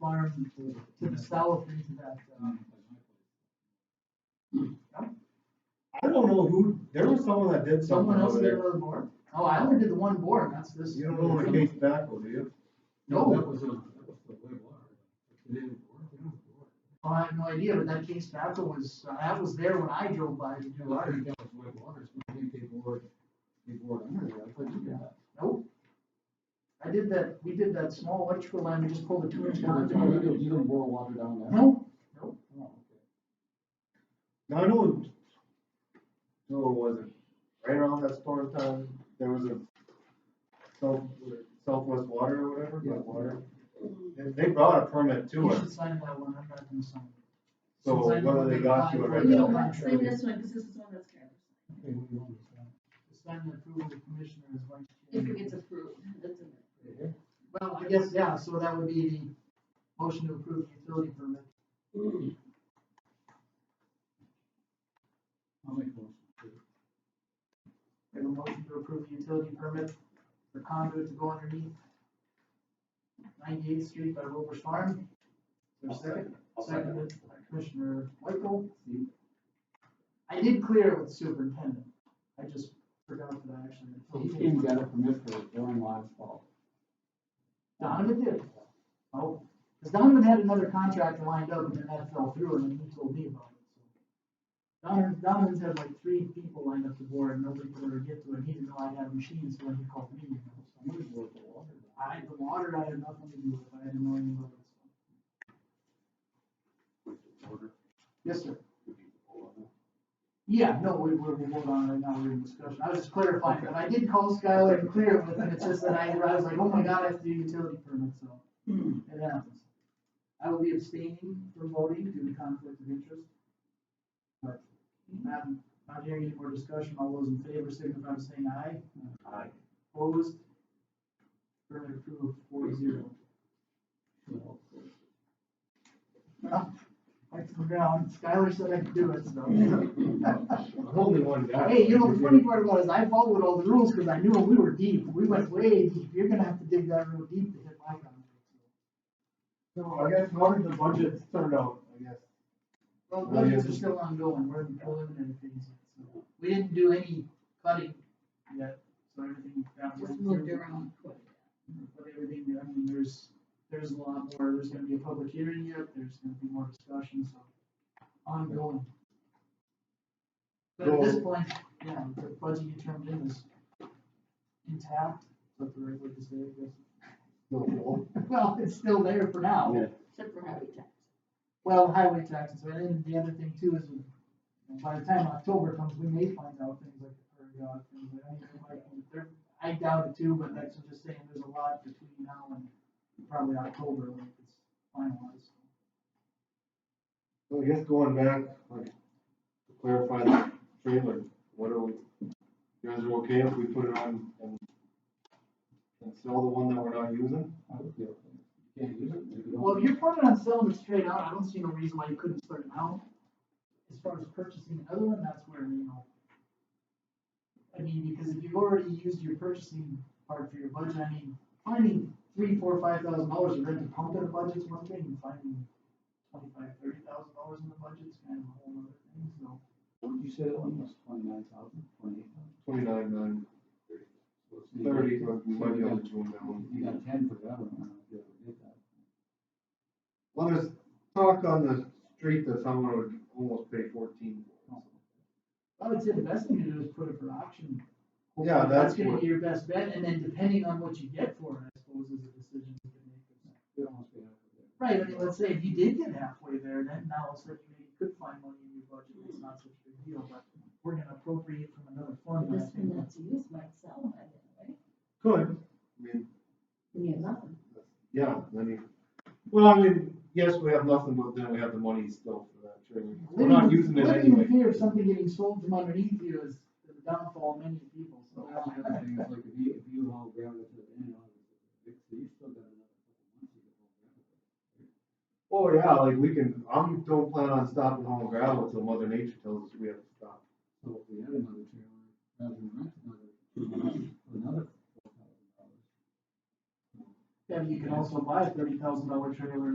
people to the south into that, um, I don't know who, there was someone that did something someone else over did there. another board? Oh, I only did the one board, and that's this. You don't know the case back, do you? No. That was a, that was the way it was. It didn't work, it didn't work. Well, I have no idea, but that case backhoe was, uh, that was there when I drove by to Yeah, do well, I it. think that was white waters, maybe people were, people were under there, I couldn't get that. Nope. I did that, we did that small electrical line, we just pulled a two inch down. You don't- you don't, you don't boil water down there. No, nope. Oh, okay. Now, I know, no, it wasn't, right around that storm time, there was a south, southwest water or whatever, Yeah. yeah, water. They- They brought a permit to You us, should sign that one, I'm not gonna sign it. so Since I know whether they that got you I- or Right You now, don't not. want to sign this one, because this is one that's kind of, Okay, what do you want to say? It's time to approve the commissioner as vice if chair. it gets approved, that's in there. Right here? Well, I guess, yeah, so that would be the motion to approve the utility permit. I'll make a motion to approve. We have a motion to approve the utility permit for conduit to go underneath ninety-eighth street by Wilbur's Farm. Is there a second? Seconded by Commissioner Michael. I did clear it with superintendent. I just forgot that I He actually. came and got a permit for a during last fall. Donovan did. Oh, because Donovan had another contract lined up and then that fell through and then he told me about it. so. Donovan, Donovan's had like three people lined up to board and nobody could ever get to it. He didn't know I had machines, so when he called me, you know, so. I'm gonna go with the water. I, the water, I had nothing to do with, it. I didn't know anything about this. Yes, sir. Yeah, no, we, we're, we're hold on right now, we're in discussion, I was just clarifying, but I did call Skylar and clear it with him, it's just that I, I was like, oh my god, I have to do utility permit, so. It happens. I will be abstaining from voting due to conflict of interest. But, not, not hearing any more discussion, all those in favor signify by saying aye. Aye. Opposed? Permit approved, four zero. Well, Right to the ground, Skylar said I could do it, so. I'm only one guy. Hey, you know, the funny part about it is I followed all the rules because I knew we were deep. We went way deep. You're gonna have to dig that real deep to hit my comment. So I guess how did the budget turn out, I guess? Well, Oh, yeah. budgets are still ongoing. We're in preliminary things yet, so. We didn't do any cutting yet, so everything. that was- Just moved around. But everything, I mean, there's, there's a lot more. There's gonna be a public hearing yet. There's gonna be more discussion, so ongoing. But at this So- point, yeah, the budget you turned in is intact, that's the right way to say it, I guess. Well, it's still there for now. Except for habitat. Well, highway taxes, and then the other thing too is you know, by the time October comes, we may find out things like the prairie dog things. I don't know, like, if they're- I doubt it too, but that's just saying there's a lot between now and probably October when it's finalized. So I guess going back, like, to clarify the trailer, what are we, you guys are okay if we put it on and, and sell the one that we're not using? I would be okay. You can't use it, you don't. Well, if you're planning on selling it straight out, I don't see no reason why you couldn't start now. As far as purchasing another one, that's where, you know. I mean, because if you've already used your purchasing part for your budget, I mean, finding three, four, five thousand dollars to rent a pump in a budget's one thing, and finding twenty-five, thirty thousand dollars in the budget's kind of a whole other thing, so. What did you say that one was, twenty-nine thousand, twenty-eight Twenty-nine, nine, thousand? thirty, but we might be able to do that You one. got ten for that one, I don't know if you ever did that. Well, there's talk on the street that someone would almost pay fourteen. I would say the best thing to do is put it for auction. Yeah, that's gonna what, be your best bet, and then depending on what you get for it, I suppose, is a decision you can make. They almost paid out for that. Right, I mean, let's say if you did get halfway there, then now all of a sudden you maybe could find money in your budget, it's not such a big deal, but we're gonna appropriate from another fund. I This think. one that's used might sell, I think, right? could, I mean, We need nothing. yeah, I mean, well, I mean, yes, we have nothing, but then we have the money still for that trailer. We're not Living- using it Living anyway. in fear of something getting sold from underneath you is the downfall of many people, So so. that's the other thing, it's like if you, if you all grab it to the end, I'll just fix it. you still got another couple months you can all grab it. Oh yeah, like we can, I'm, don't plan on stopping hauling gravel until mother nature tells us we have to stop. So if we had another trailer, rather than rent another, two months for another four thousand dollars. Then you can also buy a thirty thousand dollar trailer